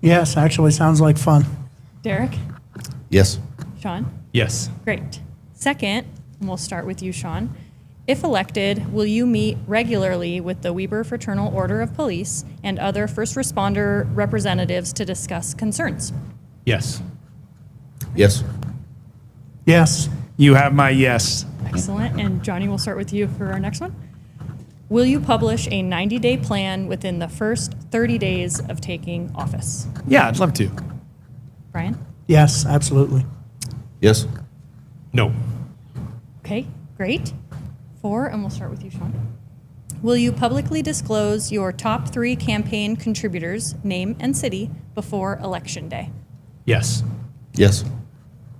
Yes, actually, sounds like fun. Derek? Yes. Sean? Yes. Great. Second, and we'll start with you, Sean. If elected, will you meet regularly with the Weber Fraternal Order of Police and other first responder representatives to discuss concerns? Yes. Yes. Yes, You have my yes. Excellent. And Johnny, we'll start with you for our next one. Will you publish a 90 day plan within the first 30 days of taking office? Yeah, I'd love to. Brian? yes, absolutely. Yes. No. Okay, great. Four, and we'll start with you, Sean. Will you publicly disclose your top three campaign contributors, name and city, before Election Day? Yes. Yes.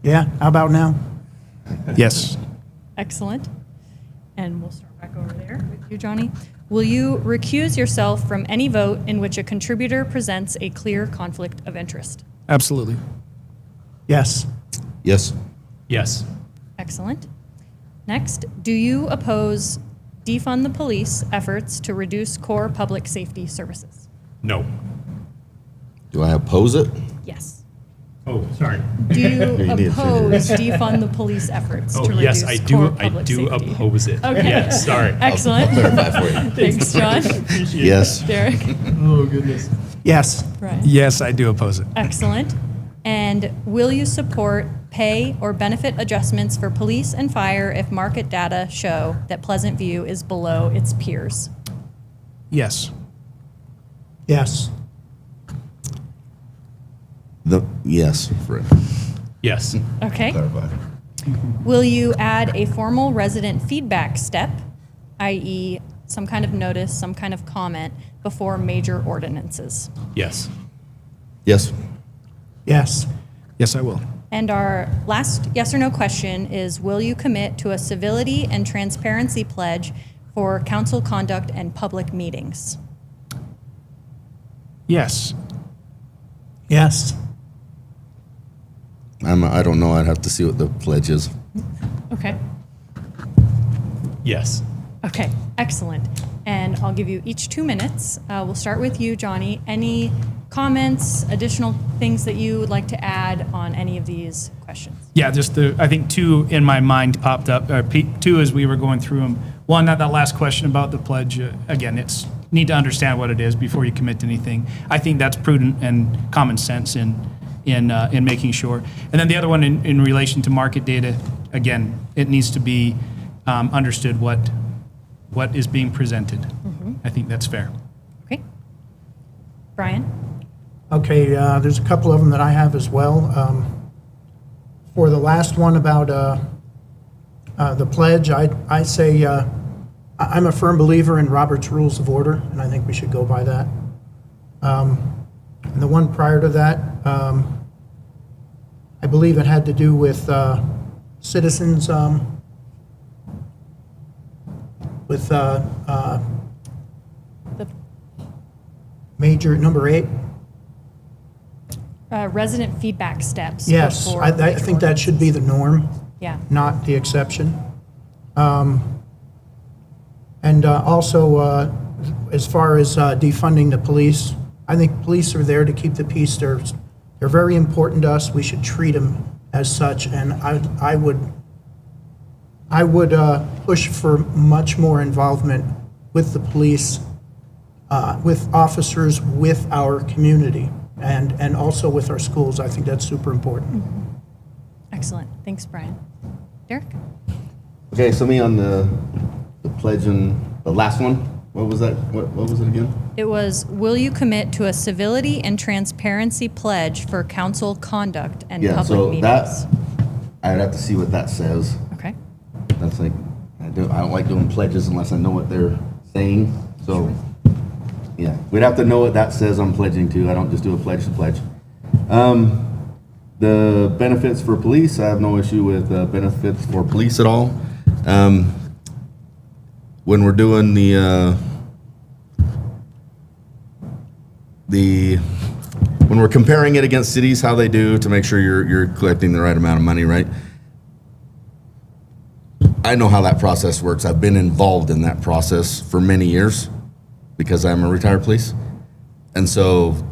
Yeah, how about now? Yes. Excellent. And we'll start back over there with you, Johnny. Will you recuse yourself from any vote in which a contributor presents a clear conflict of interest? Absolutely. Yes, Yes. Yes. Excellent. Next, do you oppose defund the police efforts to reduce core public safety services? No. Do I oppose it? Yes. Oh, sorry. Do you You did. oppose defund the police efforts to Oh, reduce yes, I do. core I public do safety? oppose it. Okay. Yes. Sorry. Excellent. clarify for you. Thanks, John. Yes. Derek. Oh, yes, Brian. Yes, I do oppose it. Excellent. And will you support pay or benefit adjustments for police and fire if market data show that Pleasant View is below its peers? Yes. yes, The yes. For Yes. Okay. clarify. Will you add a formal resident feedback step, i.e., some kind of notice, some kind of comment, before major ordinances? Yes. Yes. yes, Yes, I will. And our last yes or no question is Will you commit to a civility and transparency pledge for council conduct and public meetings? Yes. yes, I'm. I don't know. I'd have to see what the pledge is. Okay. Yes. Okay, excellent. And I'll give you each two minutes. Uh, we'll start with you, Johnny. Any comments, additional things that you would like to add on any of these questions? Yeah, just the, I think two in my mind popped up, or pe- two as we were going through them. One, that, that last question about the pledge, uh, again, it's, need to understand what it is before you commit to anything. I think that's prudent and common sense in, in, uh, in making sure. And then the other one in, in relation to market data, again, it needs to be um, understood what, what is being presented. I think that's fair. Okay. Brian? Okay, uh, there's a couple of them that I have as well. Um, For the last one about uh, uh, the pledge, I, I say, uh, I- I'm a firm believer in Robert's Rules of Order, and I think we should go by that. Um, And the one prior to that, um, I believe it had to do with uh, citizens, um, with uh, uh, The major, number eight. uh, resident feedback steps. Yes, before I, I think that should be the norm, Yeah. not the exception. Um, And uh, also, uh, as far as uh, defunding the police, I think police are there to keep the peace. They're, they're very important to us. We should treat them as such. And I, I would, I would uh, push for much more involvement with the police, uh, with officers, with our community, and, and also with our schools. I think that's super important. Excellent. Thanks, Brian. Derek? Okay. So me on the the pledge and the last one. What was that? What, what was it again? It was Will you commit to a civility and transparency pledge for council conduct and Yeah. public so meetings? that I'd have to see what that says. okay. That's like I do. I don't like doing pledges unless I know what they're saying. So yeah, we'd have to know what that says I'm pledging to. I don't just do a pledge to pledge. Um, the benefits for police, I have no issue with uh, benefits for police at all. Um, when we're doing the uh, the when we're comparing it against cities, how they do to make sure you're you're collecting the right amount of money, right? I know how that process works. I've been involved in that process for many years because I'm a retired police. And so